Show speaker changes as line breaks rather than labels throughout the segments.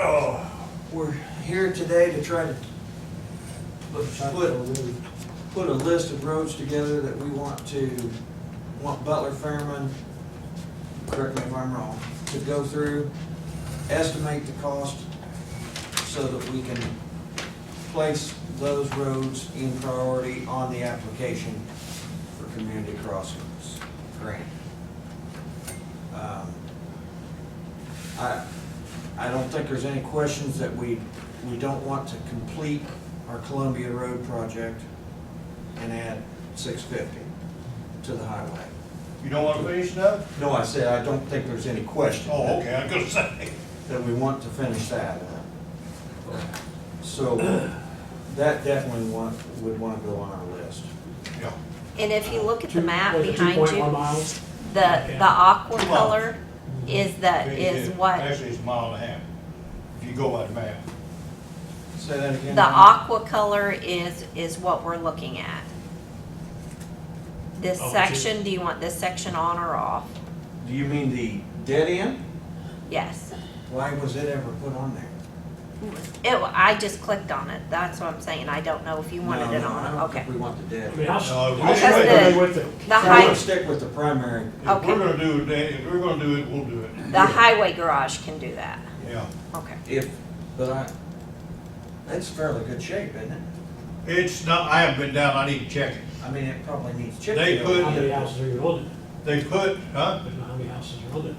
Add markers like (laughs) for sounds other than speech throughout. Oh, we're here today to try to put, put- put a list of roads together that we want to, want Butler Fairman, correct me if I'm wrong, to go through, estimate the cost so that we can place those roads in priority on the application for community crossings grant. Um, I, I don't think there's any questions that we, we don't want to complete our Columbia Road project and add six fifty to the highway.
You don't want to finish that?
No, I said, I don't think there's any question.
Oh, okay, I could say. (laughs)
That we want to finish that. up. So that definitely want, would want to go on our list.
Yeah.
And if you look at the
Two-
map
was it
behind
2.1
you,
miles?
the, the aqua
Come on.
color is the, Uh, is what,
Actually, it's a mile and a half, if you go by the map.
Say that again.
the
Mike.
aqua color is, is what we're looking at. This
Oh,
section, do you want this section on or off?
Do you mean the dead end?
Yes.
Why was it ever put on there?
It, I just clicked on it, that's what I'm saying, I don't know if you wanted
No,
it
no, I
on,
don't
okay.
think We want the dead.
I
end.
mean, how, how
No,
far
because
are
the-
they with it?
The
So we're
high,
gonna stick with the primary.
If
Okay.
we're gonna do it, then- if we're gonna do it, we'll do it.
the highway garage can do that,
Yeah.
okay.
If, but I, that's fairly good shape, isn't it?
It's not, I haven't been down, I need to check it.
I mean, it probably needs Uh, chip
They
seal.
put-
How many houses are you building?
They put, huh?
I don't know How many houses are building?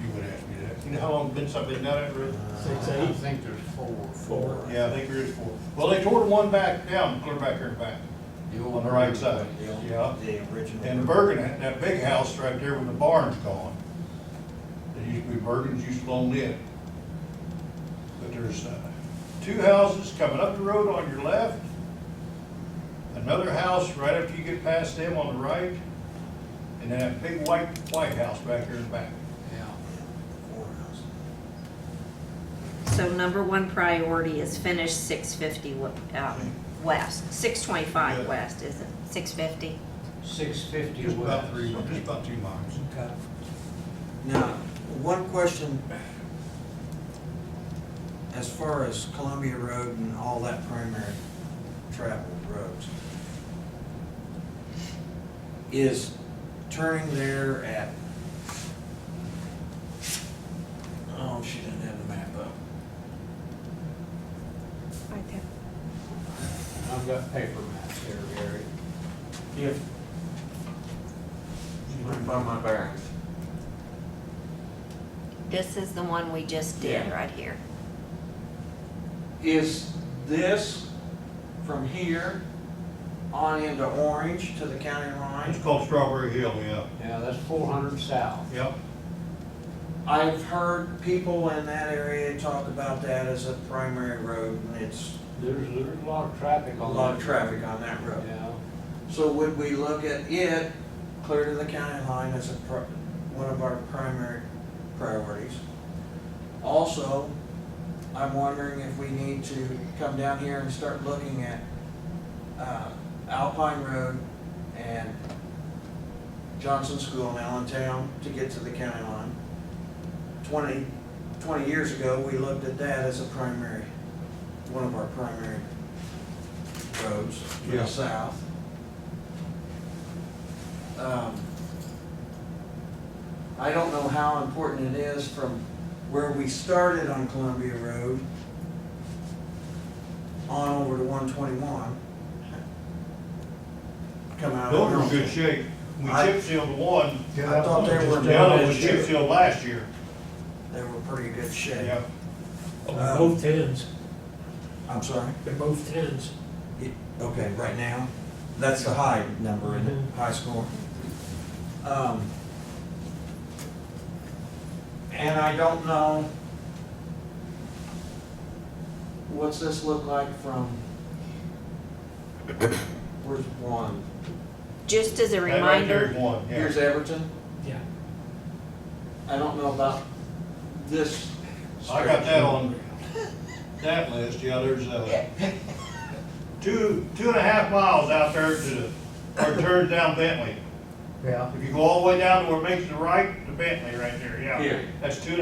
You would ask me that. You know how long been something down that road?
Six, eight?
think there's four.
Four.
Yeah, I think there is four. Well, they tore the one back down, clear back here and back, on the right side.
The old-
Yeah.
The original.
And Bergen, that- that big house right there when the barn's gone, it used to be Bergen's, used to own it. But there's, uh, two houses coming up the road on your left, another house right after you get past them on the right, and then that big white, white house back there in the back.
Four houses.
So number one priority is finish six fifty, um, west, six twenty-five
Yeah.
west, is it, six fifty?
Six fifty
Just about
west.
three, just about two miles.
Okay.
Now, one question, as far as Columbia Road and all that primary traveled roads, is turning there at, oh, she didn't have the map up.
Right there.
I've got paper maps here, Gary.
If. By my bearings.
This is the one we just did
Yeah.
right here.
Is this from here on into Orange to the county line?
It's called Strawberry Hill, yeah.
Yeah, that's four hundred south.
Yep,
I've heard people in that area talk about that as a primary road, and it's
There's, there's a lot of traffic
a
on that.
lot of traffic on that road.
Yeah.
So would we look at it, clear to the county line as a, pri- one of our primary priorities? Also, I'm wondering if we need to come down here and start looking at, uh, Alpine Road and Johnson School in Allentown to get to the county line. Twenty, twenty years ago, we looked at that as a primary, one of our primary roads to
Yeah.
the south. Um, I don't know how important it is from where we started on Columbia Road on over to one twenty-one. Come out. of
those are in
Wilmington.
good shape. We
I-
chip sealed one,
I thought they were
the other
down
was
this
chip
year.
sealed last year.
They were pretty good shape.
Yeah,
Oh, Both tens,
I'm sorry?
they're both tens.
It- Okay, right now, that's the high number in
Mm-hmm.
it, high score. Um, And I don't know, what's this look like from, where's one?
Just as a
that right there is
reminder,
one, yeah.
Here's Everton,
Yeah.
I don't know about this.
I got that on that list, yeah, there's, uh, two, two and a half miles out there to the, or turns down Bentley.
Yeah.
If you go all the way down to where it makes the right, to Bentley right there, yeah.
Here.
That's two and a